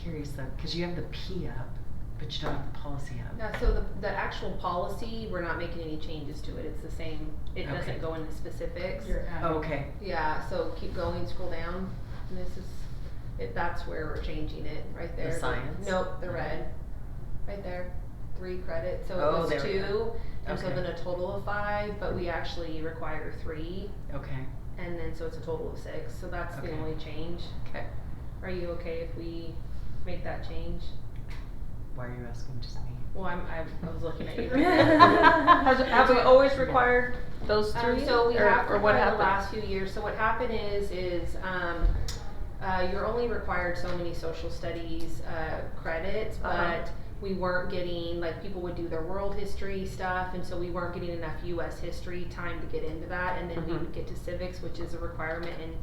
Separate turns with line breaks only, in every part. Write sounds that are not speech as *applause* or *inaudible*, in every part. curious though, because you have the P up, but you don't have the policy up.
Yeah, so the, the actual policy, we're not making any changes to it, it's the same, it
Okay.
doesn't go into specifics.
You're adding.
Oh, Okay,
Yeah, so keep going, scroll down, and this is, if that's where we're changing it, right there.
science?
Nope, the red, right there, three credits, so
Oh,
it was
there we
two,
go.
and so
Okay.
then a total of five, but we actually require three,
okay.
and then, so it's a total of six, so that's the
Okay.
only change.
Okay.
Are you okay if we make that change?
Why are you asking just me?
Well, I'm, I I was looking at you.
*laughs*
*laughs*
Has, have we always required those
Um,
three?
so we
or,
have
or
required
what
the
happened?
last few years, so what happened is, is, um, uh, you're only required so many social studies, uh, credits,
Uh-huh.
but we weren't getting, like, people would do their world history stuff, and so we weren't getting enough US history time to get into that, and then we
Mhm.
would get to civics, which is a requirement, and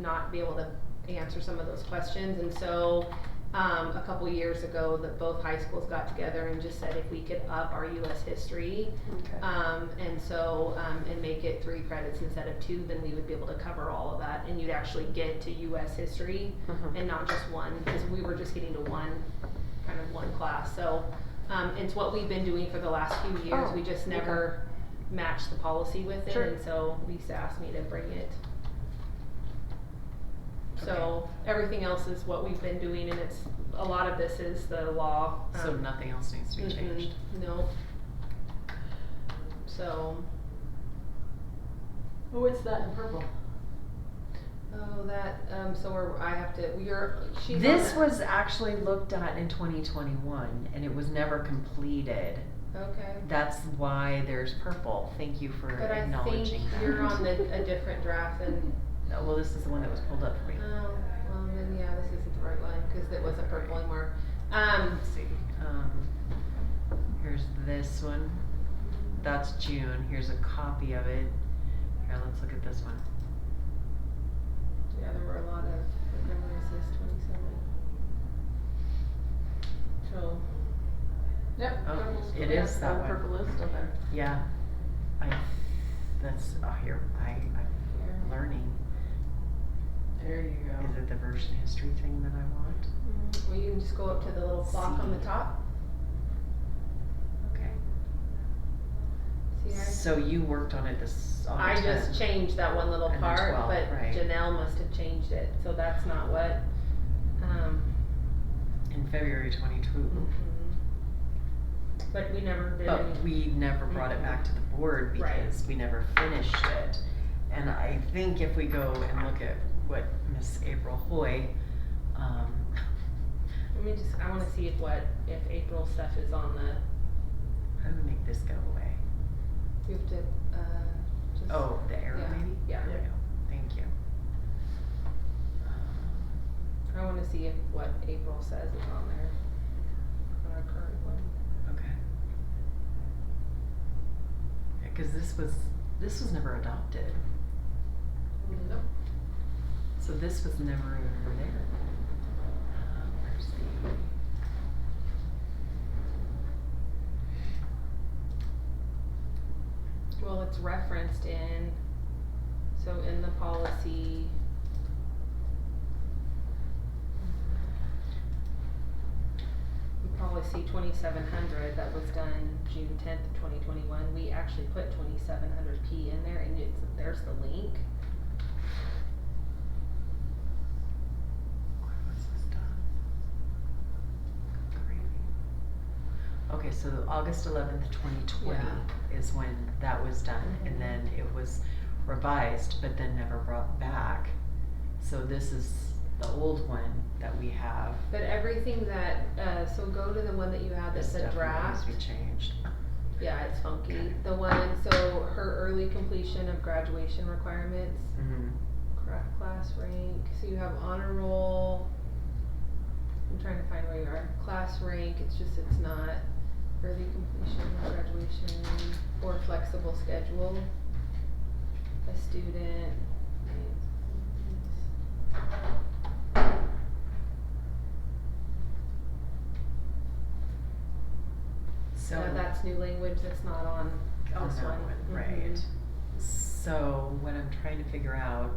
not be able to answer some of those questions, and so, um, a couple years ago, that both high schools got together and just said if we could up our US history,
Okay.
um, and so, um, and make it three credits instead of two, then we would be able to cover all of that and you'd actually get to US history
Mhm.
and not just one, because we were just getting to one, kind of one class, so, um, it's what we've been doing for the last few years,
Oh,
we just
okay.
never matched the policy with it,
Sure.
and so Lisa asked me to bring it. So,
Okay.
everything else is what we've been doing and it's, a lot of this is the law, um.
So nothing else needs to be
Mm-mm,
changed.
No. So,
Well, what's that in purple?
oh, that, um, so we're, I have to, you're, she's on
This
that.
was actually looked at in twenty twenty-one and it was never completed.
Okay.
That's why there's purple. Thank you for
But I think
acknowledging that. *laughs*
you're on the, a different draft than,
No, well, this is the one that was pulled up for
oh,
me.
well, then, yeah, this isn't the right one, cause it wasn't purple anymore. Um,
Let's see, um, here's this one. That's June. Here's a copy of it. Here, let's look at this one.
yeah, there were a lot of, what number is this, twenty-seven? So,
Yep.
Oh,
purple's
it
good.
is
That's
that
the
one.
Purple is still there.
Yeah, I, that's, oh, here, I,
here.
I'm learning.
There you
Oh.
go.
Is it the version history thing that I want?
Mm, Well, you can just go up to the little clock on the
See.
top,
Okay.
see right?
So you worked on it this, on
I
the
just
10.
changed that one little
And the
part,
12,
but
right.
Janelle must have changed it, so that's not what, um, mm-hmm.
In February twenty-two.
but we never did any.
But we never brought it back to the board
Right.
because we never finished it. And I think if we go and look at what Miss April Hoy, um, *laughs*
Let me just, I wanna see if what, if April stuff is on the,
how do we make this go away?
we have to, uh, just.
Oh, the arrow
yeah,
maybe?
yeah.
There we go. Thank you. Uh,
I wanna see if what April says is on there, on our current one.
Okay. Yeah, cause this was, this was never adopted,
Nope.
so this was never even there. Um, Where's the?
Well, it's referenced in, so in the policy. in Policy twenty-seven hundred that was done June tenth, twenty twenty-one, we actually put twenty-seven hundred P in there and it's, there's the link.
Where was this done? Gravy. Okay, so August eleventh, twenty twenty is when that was done,
Mhm.
and then it was revised, but then never brought back. So this is the old one that we have.
But everything that, uh, so go to the one that you had that
This
said
definitely needs
draft.
to be changed.
Yeah, it's funky. The one, so her early completion of graduation requirements.
Mhm.
Correct class rank, so you have honor roll. I'm trying to find where you are. Class rank, it's just, it's not early completion, graduation, or flexible schedule. A student.
So.
No, that's new language, that's not on
on
this
that
one. mm-hmm.
one, right. So what I'm trying to figure out